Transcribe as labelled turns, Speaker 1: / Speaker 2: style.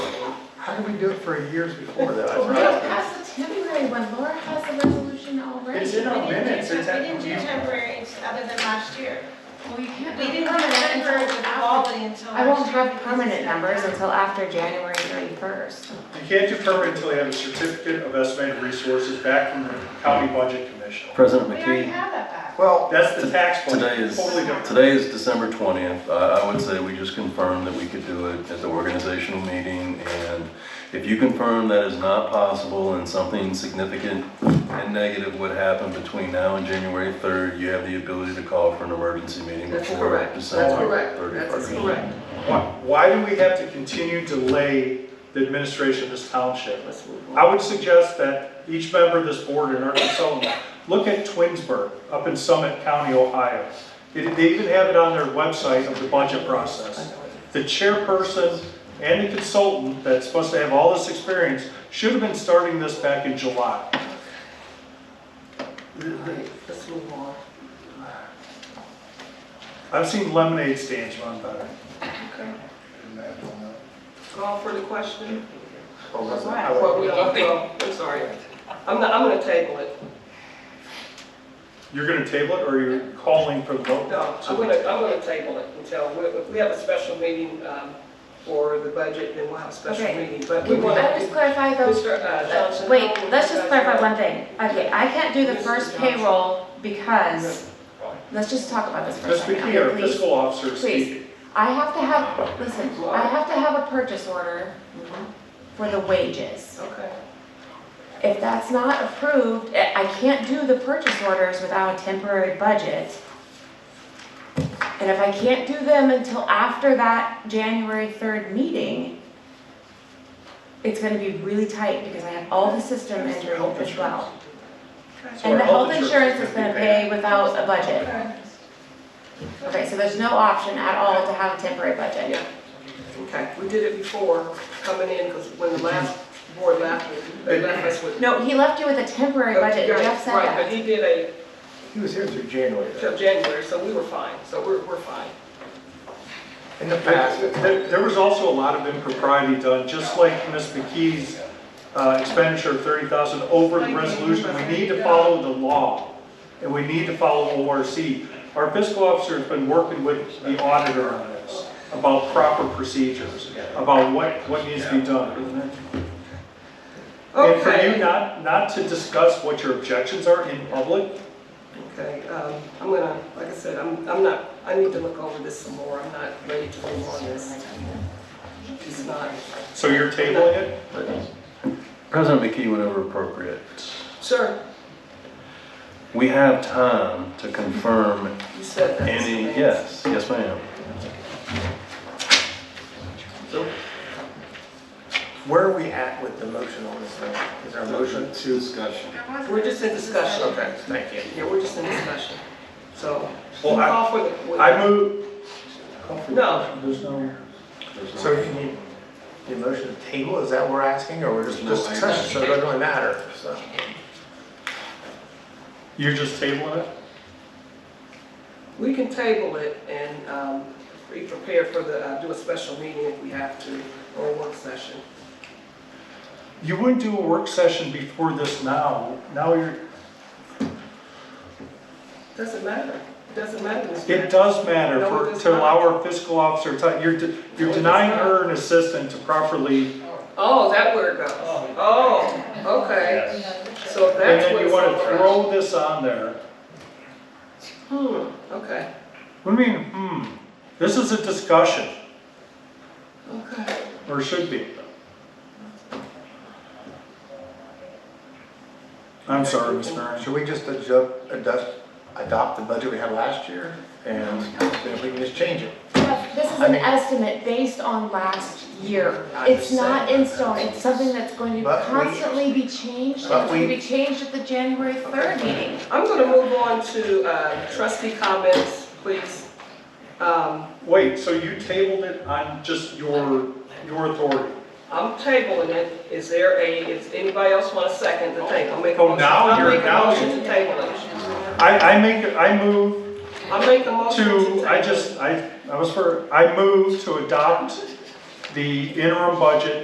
Speaker 1: How did we do it for years before that?
Speaker 2: We
Speaker 1: Right.
Speaker 2: don't have the temporary one, Laura has the resolution already.
Speaker 1: It's in our
Speaker 2: We didn't
Speaker 1: minutes,
Speaker 2: do
Speaker 1: it's
Speaker 2: temp-
Speaker 1: at.
Speaker 3: We didn't do temporary ex- other than last year.
Speaker 2: Well, you can't
Speaker 3: We
Speaker 2: do
Speaker 3: didn't do
Speaker 2: permanent until
Speaker 3: temporary with
Speaker 2: after-
Speaker 3: quality until last year.
Speaker 4: I won't have
Speaker 3: because
Speaker 4: permanent
Speaker 3: it's not
Speaker 4: numbers
Speaker 3: done.
Speaker 4: until after January thirty-first.
Speaker 1: You can't do permanent until you have a certificate of estimated resources back from the county budget commission.
Speaker 5: President
Speaker 3: We already
Speaker 5: McKee,
Speaker 3: have that back.
Speaker 1: Well, that's the tax budget.
Speaker 5: today is,
Speaker 1: Totally different.
Speaker 5: today is December 20th. I I would say we just confirmed that we could do it at the organizational meeting. And if you confirm that is not possible and something significant and negative would happen between now and January 3rd, you have the ability to call for an emergency meeting
Speaker 2: That's
Speaker 5: before
Speaker 2: correct. That's
Speaker 5: December
Speaker 2: correct.
Speaker 5: 31st.
Speaker 2: That's correct.
Speaker 1: Why, why do we have to continue to delay the administration of this township?
Speaker 2: Let's move on.
Speaker 1: I would suggest that each member of this board in our consultant, look at Twinsburg up in Summit County, Ohio. They they even have it on their website of the budget process. The chairperson and the consultant that's supposed to have all this experience should have been starting this back in July.
Speaker 2: Alright, Let's move on.
Speaker 1: I've seen lemonade stands run better.
Speaker 6: Call for the question?
Speaker 1: I would-
Speaker 6: Well, we don't, well, I'm sorry. I'm not, I'm gonna table it.
Speaker 1: You're gonna table it, or you're calling for the vote?
Speaker 6: No, I'm gonna, I'm gonna table it until, we- if we have a special meeting, um, for the budget, then we'll have a special
Speaker 4: Okay.
Speaker 6: meeting, but we
Speaker 4: Can
Speaker 6: want
Speaker 4: I
Speaker 6: to.
Speaker 4: just clarify though?
Speaker 6: Mr. uh, Johnson.
Speaker 4: Wait, let's just clarify one thing. Okay, I can't do the
Speaker 6: Mrs.
Speaker 4: first
Speaker 6: Johnson.
Speaker 4: payroll because, let's just talk about this for a
Speaker 1: Ms.
Speaker 4: second.
Speaker 1: McKee, our
Speaker 4: okay, please.
Speaker 1: fiscal officer,
Speaker 4: Please,
Speaker 1: speaking.
Speaker 4: I have to have, listen, I have to have a purchase order
Speaker 6: Mhm.
Speaker 4: for the wages.
Speaker 6: Okay,
Speaker 4: If that's not approved, I I can't do the purchase orders without a temporary budget. And if I can't do them until after that January third meeting, it's gonna be really tight because I have all the system involved as well.
Speaker 1: So
Speaker 4: And the
Speaker 1: our
Speaker 4: health insurance is
Speaker 1: fifty
Speaker 4: gonna
Speaker 1: paid.
Speaker 4: pay without a budget.
Speaker 6: okay,
Speaker 4: Okay, so there's no option at all to have a temporary budget.
Speaker 6: yeah, okay. We did it before, coming in, because when the last board left, they left us with.
Speaker 4: No, he left you with a temporary budget,
Speaker 6: Right,
Speaker 4: Jeff said
Speaker 6: Right, but
Speaker 4: that.
Speaker 6: he did a,
Speaker 7: He was here through January.
Speaker 6: till January, so we were fine, so we're, we're fine.
Speaker 7: In the past,
Speaker 1: There there was also a lot of impropriety done, just like Ms. McKee's uh, expenditure of thirty thousand over the resolution. We need to follow the law, and we need to follow ORC. Our fiscal officer has been working with the auditor on this, about proper procedures, about what, what needs to be done. And for you
Speaker 6: Okay,
Speaker 1: not, not to discuss what your objections are in public,
Speaker 6: okay, um, I'm gonna, like I said, I'm, I'm not, I need to look over this some more, I'm not ready to move on this. It's not,
Speaker 1: so you're tabling it?
Speaker 5: President McKee, whenever appropriate,
Speaker 6: sure,
Speaker 5: we have time to confirm
Speaker 6: you said that. Mr.
Speaker 5: any,
Speaker 6: Vance.
Speaker 5: yes, yes ma'am.
Speaker 7: where are we at with the motion on this thing? Is our motion?
Speaker 5: Discussion.
Speaker 3: There wasn't
Speaker 6: We're just in discussion.
Speaker 7: Okay, thank you.
Speaker 6: Yeah, we're just in discussion, so.
Speaker 1: Well, I-
Speaker 6: Call for the-
Speaker 1: I move.
Speaker 6: No.
Speaker 1: There's no.
Speaker 7: So you need the motion to table, is that what we're asking, or we're just
Speaker 5: No, I-
Speaker 7: discussing, so it doesn't really matter, so.
Speaker 1: You're just tabling it?
Speaker 6: We can table it and, um, be prepared for the, uh, do a special meeting if we have to, or a work session.
Speaker 1: You wouldn't do a work session before this now. Now you're,
Speaker 6: Doesn't matter, doesn't matter, Mr.
Speaker 1: it
Speaker 6: Vance.
Speaker 1: does matter
Speaker 6: No, it
Speaker 1: for,
Speaker 6: does
Speaker 1: to
Speaker 6: not.
Speaker 1: allow our fiscal officer time. You're, de- you're
Speaker 6: No, it does
Speaker 1: denying
Speaker 6: not.
Speaker 1: her an assistant to properly,
Speaker 6: Oh, that where it goes. Oh, okay. So if
Speaker 1: and
Speaker 6: that's
Speaker 1: then
Speaker 6: what
Speaker 1: you
Speaker 6: it's
Speaker 1: want
Speaker 6: all
Speaker 1: to
Speaker 6: about.
Speaker 1: throw this on there.
Speaker 6: Hmm, okay,
Speaker 1: What do you mean, hmm? This is a discussion,
Speaker 6: okay.
Speaker 1: or should be. I'm sorry, Ms. Barron.
Speaker 7: Should we just adjust, adjust, adopt the budget we had last year, and then we can just change it?
Speaker 4: Jeff, This is
Speaker 7: I
Speaker 4: an
Speaker 7: mean-
Speaker 4: based based on last year.
Speaker 7: I
Speaker 4: It's
Speaker 7: understand.
Speaker 4: not in stone, it's something that's going to
Speaker 7: But we-
Speaker 4: constantly be changed, and
Speaker 7: But
Speaker 4: it's going to
Speaker 7: we-
Speaker 4: be changed at the January 3rd meeting.
Speaker 6: I'm gonna move on to uh, trustee comments, please. Um,
Speaker 1: Wait, so you tabled it on just your, your authority?
Speaker 6: I'm tabling it. Is there a, is anybody else want a second to table? I'll make a
Speaker 1: Oh,
Speaker 6: motion-
Speaker 1: now
Speaker 6: I'll
Speaker 1: you're-
Speaker 6: make a
Speaker 1: now
Speaker 6: motion
Speaker 1: you-
Speaker 6: to table it.
Speaker 1: I, I make, I move
Speaker 6: I'll make a motion to table
Speaker 1: to,
Speaker 6: it.
Speaker 1: I just, I, I was for, I move to adopt the interim budget